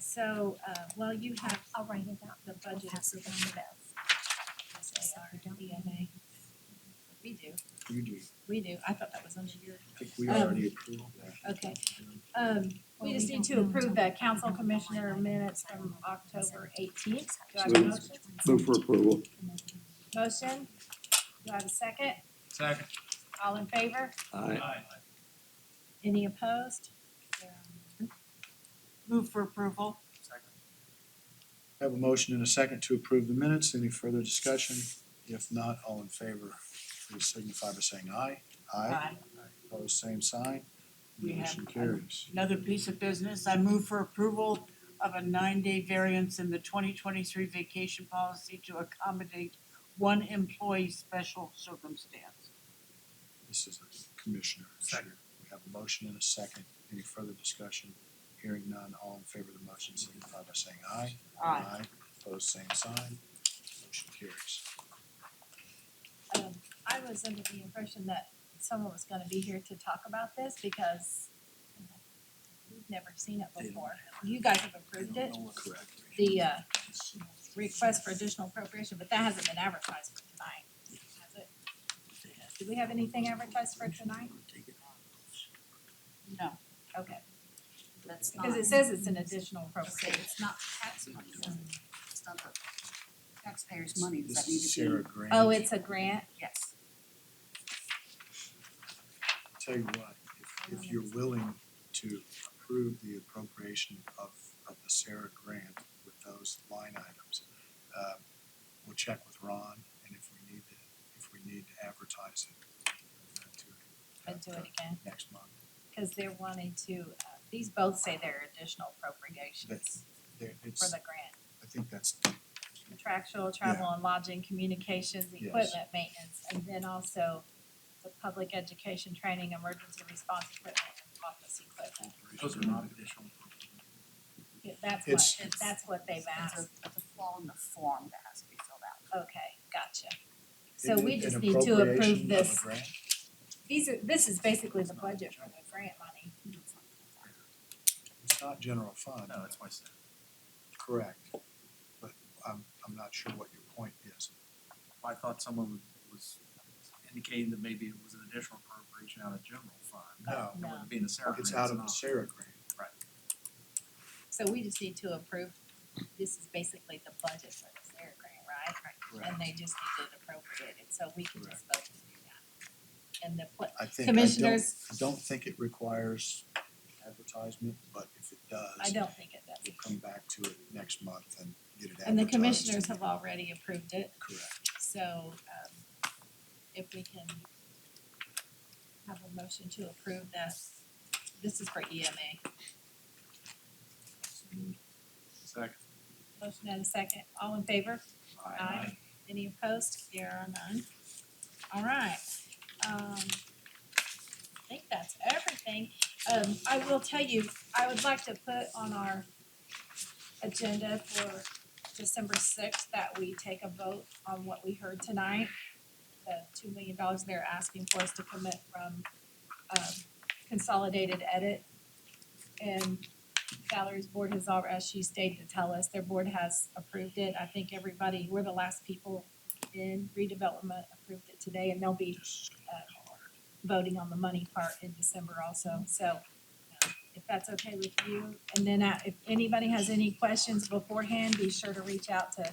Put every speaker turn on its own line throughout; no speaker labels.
So uh while you have
I'll write it down.
the budget.
Pass it down to
SAR, DMA. We do,
You do,
we do. I thought that was under your,
I think we
Um,
already approved that.
okay. Um
Well,
we just
we
need to
don't know
approve
until
the council
we-
commissioner minutes from October eighteenth. Do I have a
Move.
motion?
Move for approval.
Motion? Do I have a second?
Second.
All in favor?
Aye.
Any opposed?
Move for approval.
Second.
I have a motion and a second to approve the minutes. Any further discussion? If not, all in favor, please signify by saying aye.
Aye.
Opposed, same sign.
We have-
Motion carries.
Another piece of business, I move for approval of a nine-day variance in the twenty twenty-three vacation policy to accommodate one employee special circumstance.
This is a commissioner. issue.
Second.
We have a motion and a second. Any further discussion? Hearing none, all in favor of the motion signify by saying aye.
Aye.
Opposed, same sign. Motion carries.
Um I was under the impression that someone was gonna be here to talk about this because we've never seen it before. You guys have approved it,
Correct.
the uh request for additional appropriation, but that hasn't been advertised for tonight, has it? Do we have anything advertised for tonight?
No,
Okay,
That's not.
because it says it's an additional appropriation.
It's not tax money, it's it's not the taxpayers' money, does
This
that need
is
to
Sarah
be?
Grant.
Oh, it's a grant?
Yes.
Tell you what, if, if you're willing to approve the appropriation of, of the Sarah grant with those line items, uh, we'll check with Ron, and if we need to, if we need to advertise it, uh, to-
I'd do it again,
Next month.
because they're wanting to, uh, these both say they're additional
That's-
appropriations
There,
for
it's,
the grant.
I think that's,
contractual, travel and lodging, communications,
Yes.
equipment maintenance, and then also the public education, training, emergency response equipment, and office equipment.
Those are not additional.
Yeah, That's
It's-
what, that's what they've
That's
asked.
a, that's a flaw in the form that has to be filled out.
Okay, gotcha. So
An-
we
an
just need to
appropriation of
approve
a
this.
grant?
These are, this is basically the budget for the grant money.
It's not the form.
It's not general fund,
No, that's my second.
correct, but I'm, I'm not sure what your point is.
I thought someone was indicating that maybe it was an additional appropriation out of general fund.
No.
It wouldn't be in the Sarah
It's
grant,
out of the
not.
Sarah grant.
So we just need to approve, this is basically the budget for this air grant, right?
Correct.
And they just need it appropriated, so we can just vote to do that. And the pla-
I think, I don't,
commissioners,
I don't think it requires advertisement, but if it
I
does,
don't think it does.
we'll come back to it next month and get it advertised.
And the commissioners have already approved it,
Correct.
so um if we can have a motion to approve that, this is for E EMA.
Second.
Motion and a second, all in favor? Any opposed? There are none. All right, um, I think that's everything. Um, I will tell you, I would like to put on our agenda for December sixth that we take a vote on what we heard tonight. The two million dollars they're asking for us to commit from, um, consolidated edit. And salaries board has already, as she stayed to tell us, their board has approved it. I think everybody, we're the last people in redevelopment approved it today and they'll be uh, voting on the money part in December also. So uh, if that's okay with you, and then uh, if anybody has any questions beforehand, be sure to reach out to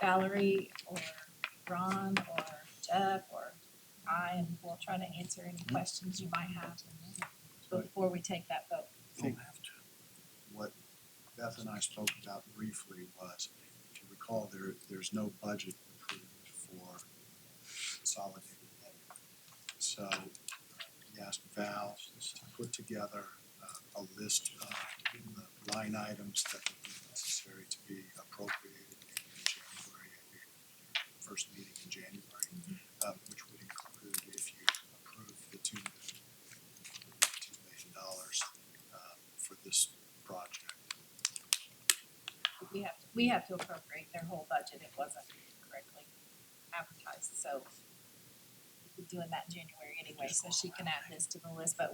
Valerie or Ron or Jeff or I, and we'll try to answer any questions you might have before we take that vote.
I think what Beth and I spoke about briefly was, if you recall, there, there's no budget approved for consolidated ed. So uh, we asked Val to put together uh, a list of the line items that would be necessary to be appropriated in January, at your first meeting in January, uh, which would include if you approve the two, two million dollars uh, for this project.
we have, to we have to appropriate their whole budget, it wasn't correctly advertised, so we're doing that in January anyway, so she can add this to the list, but